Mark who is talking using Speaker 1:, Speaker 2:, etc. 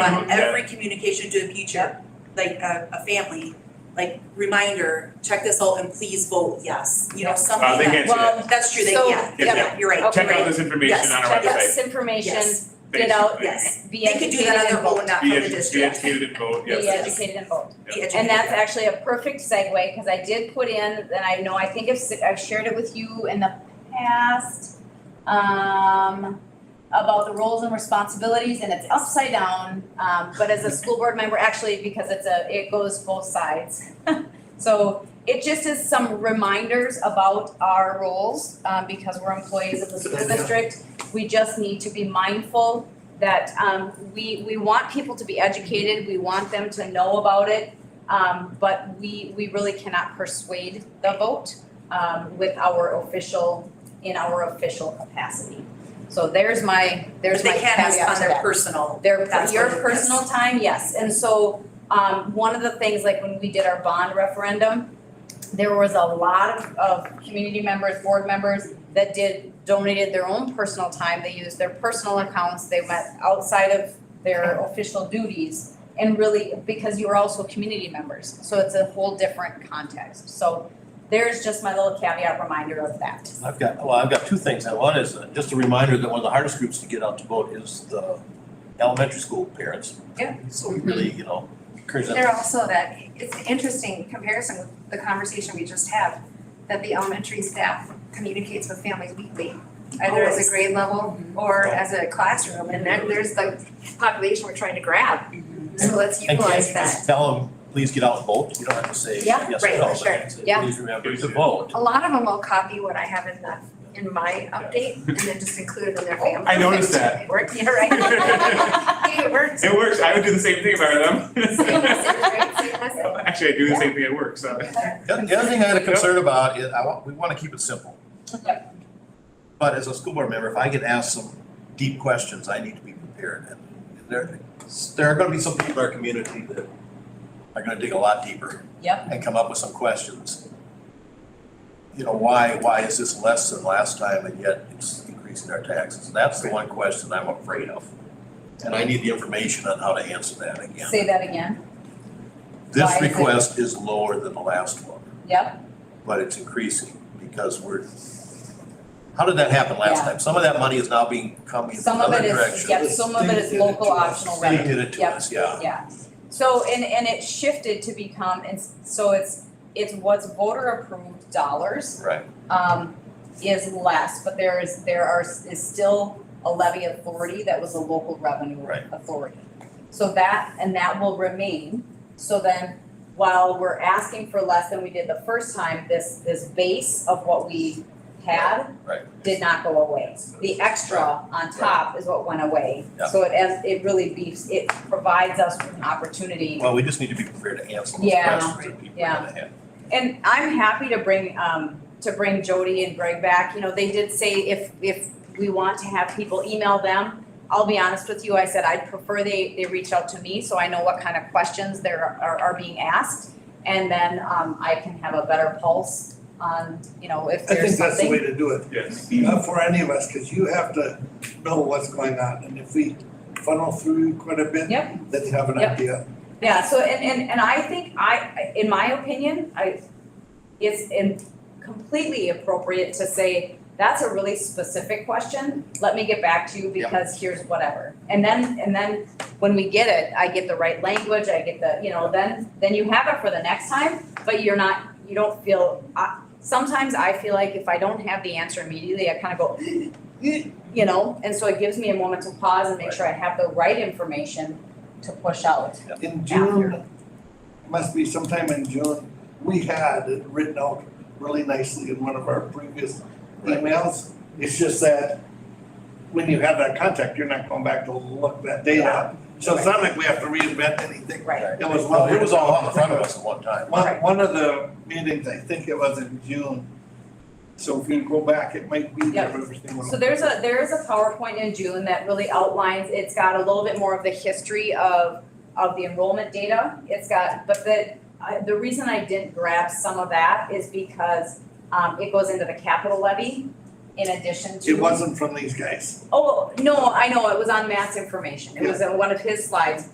Speaker 1: on
Speaker 2: Okay.
Speaker 1: every communication to the future, like a, a family, like reminder, check this out and please vote yes, you know, something
Speaker 2: Uh,
Speaker 1: that.
Speaker 2: they can answer that.
Speaker 3: Well,
Speaker 1: That's true, they
Speaker 3: So-
Speaker 1: can,
Speaker 2: Yeah,
Speaker 1: yeah, you're right,
Speaker 3: Okay.
Speaker 2: Check out
Speaker 1: right.
Speaker 2: this information on our
Speaker 3: check out
Speaker 2: website,
Speaker 3: this information,
Speaker 1: yes,
Speaker 3: get out,
Speaker 2: basically.
Speaker 1: yes.
Speaker 3: be
Speaker 1: They could do
Speaker 3: educated
Speaker 1: that on
Speaker 3: and
Speaker 1: their own,
Speaker 3: vote.
Speaker 1: not from
Speaker 2: Be
Speaker 1: the
Speaker 2: edu- be
Speaker 1: district.
Speaker 2: educated and vote,
Speaker 3: Be
Speaker 2: yes.
Speaker 3: educated and vote.
Speaker 1: Be educated.
Speaker 3: And that's actually a perfect segue, because I did put in, and I know, I think I've, I've shared it with you in the past, um, about the roles and responsibilities, and it's upside down, um, but as a school board member, actually, because it's a, it goes both sides. So it just is some reminders about our roles, um, because we're employees of the school district. We just need to be mindful that, um, we, we want people to be educated, we want them to know about it, um, but we, we really cannot persuade the vote, um, with our official, in our official capacity. So there's my, there's
Speaker 1: But
Speaker 3: my
Speaker 1: they can ask
Speaker 3: caveat
Speaker 1: on
Speaker 3: to
Speaker 1: their
Speaker 3: that.
Speaker 1: personal,
Speaker 3: Their,
Speaker 1: That's
Speaker 3: your
Speaker 1: what it
Speaker 3: personal time, yes, and so, um, one of the things, like when we did our bond referendum, there was a lot of, of community members, board members that did, donated their own personal time, they used their personal accounts, they went outside of their official duties. And really, because you are also community members, so it's a whole different context, so there's just my little caveat reminder of that.
Speaker 4: I've got, well, I've got two things. Now, One is uh, just a reminder that one of the hardest groups to get out to vote is the elementary school parents.
Speaker 5: Yeah.
Speaker 4: So we really, you know, encourage them.
Speaker 5: They're also that, it's an interesting comparison with the conversation we just had, that the elementary staff communicates with families weekly, either as
Speaker 1: Always.
Speaker 5: a grade level
Speaker 2: Mm-hmm.
Speaker 5: or as a classroom, and then there's the population we're trying to grab.
Speaker 3: Mm-hmm.
Speaker 2: Mm-hmm.
Speaker 5: So let's
Speaker 4: And can't
Speaker 5: utilize
Speaker 4: you
Speaker 5: that.
Speaker 4: just tell them, please get out and vote? You don't have to say
Speaker 3: Yeah,
Speaker 4: yes
Speaker 5: right,
Speaker 4: or no,
Speaker 5: sure.
Speaker 4: but say,
Speaker 3: Yeah.
Speaker 4: please remember to vote.
Speaker 5: A lot of them will copy what I have in the, in my update and then just include it in their family.
Speaker 2: I noticed that.
Speaker 5: It worked, yeah, right. It works.
Speaker 2: It works, I would do the same thing if I were
Speaker 5: Same message,
Speaker 2: them.
Speaker 5: right? Same message.
Speaker 2: Actually, I do the same thing at work, so.
Speaker 4: The other- the other thing I had a concern about is, I want, we wanna keep it simple.
Speaker 3: Yep.
Speaker 4: But as a school board member, if I get asked some deep questions, I need to be prepared. And There, there are gonna be some people in our community that are gonna dig a lot deeper.
Speaker 3: Yep.
Speaker 4: And come up with some questions. You know, why, why is this less than last time and yet it's increasing our taxes? That's the one question I'm afraid of. And I need the information on how to answer that again.
Speaker 3: Say that again, Why
Speaker 4: This
Speaker 3: is it-
Speaker 4: request is lower than the last one
Speaker 3: yep,
Speaker 4: but it's increasing because we're, how did that happen last
Speaker 3: Yeah.
Speaker 4: time? Some of that money is now being coming in
Speaker 3: some of
Speaker 4: another
Speaker 3: it
Speaker 4: direction.
Speaker 3: is, yep, some of it is local optional revenue.
Speaker 4: They did it to
Speaker 3: Yep.
Speaker 4: us, yeah.
Speaker 3: Yeah, so and and it shifted to become, and s- so it's it's what's voter approved dollars
Speaker 4: Right,
Speaker 3: um is less, but there is there are s- is still a levy authority that was a local revenue
Speaker 4: Right.
Speaker 3: authority. So that and that will remain, so then while we're asking for less than we did the first time, this this base of what we had
Speaker 4: right.
Speaker 3: did not go away. The extra on top is what went away.
Speaker 4: Yeah.
Speaker 3: So it as, it really beefs, it provides us with an opportunity.
Speaker 4: Well, we just need to be prepared to answer those
Speaker 3: Yeah,
Speaker 4: questions that people
Speaker 3: yeah.
Speaker 4: are gonna have.
Speaker 3: And I'm happy to bring, um, to bring Jody and Greg back, you know, they did say if, if we want to have people email them, I'll be honest with you, I said I'd prefer they, they reach out to me, so I know what kind of questions there are, are being asked. And then, um, I can have a better pulse on, you know, if
Speaker 6: I
Speaker 3: there's
Speaker 6: think
Speaker 3: something.
Speaker 6: that's the way to do it,
Speaker 2: Yes.
Speaker 6: not for any of us, because you have to know what's going on, and if we funnel through quite a bit,
Speaker 3: Yep.
Speaker 6: then you have an
Speaker 3: Yep.
Speaker 6: idea.
Speaker 3: Yeah, so and and and I think I, in my opinion, I, it's in completely appropriate to say, that's a really specific question, let me get back to you
Speaker 4: Yeah.
Speaker 3: because here's whatever. And then, and then when we get it, I get the right language, I get the, you know, then then you have it for the next time, but you're not, you don't feel, I, sometimes I feel like if I don't have the answer immediately, I kind of go, you know, and so it gives me a moment to pause and make sure I have the right information to push out.
Speaker 6: In June, must be sometime in June, we had it written out really nicely in one of our previous
Speaker 4: Right.
Speaker 6: emails. It's just that when you have that contact, you're not going back to look that data up. So it's not like we have to reinvent anything.
Speaker 3: Right.
Speaker 6: It was
Speaker 4: Well,
Speaker 6: well,
Speaker 4: it was all in front of us at one time.
Speaker 6: One, one of the meetings, I think it was in June, so if we go back, it might be
Speaker 3: Yep.
Speaker 6: everything.
Speaker 3: So there's a, there is a PowerPoint in June that really outlines, it's got a little bit more of the history of, of the enrollment data. It's got, but the, I, the reason I didn't grab some of that is because, um, it goes into the capital levy in addition to.
Speaker 6: It wasn't from these guys.
Speaker 3: Oh, no, I know, it was on Matt's information. It was in one of his slides,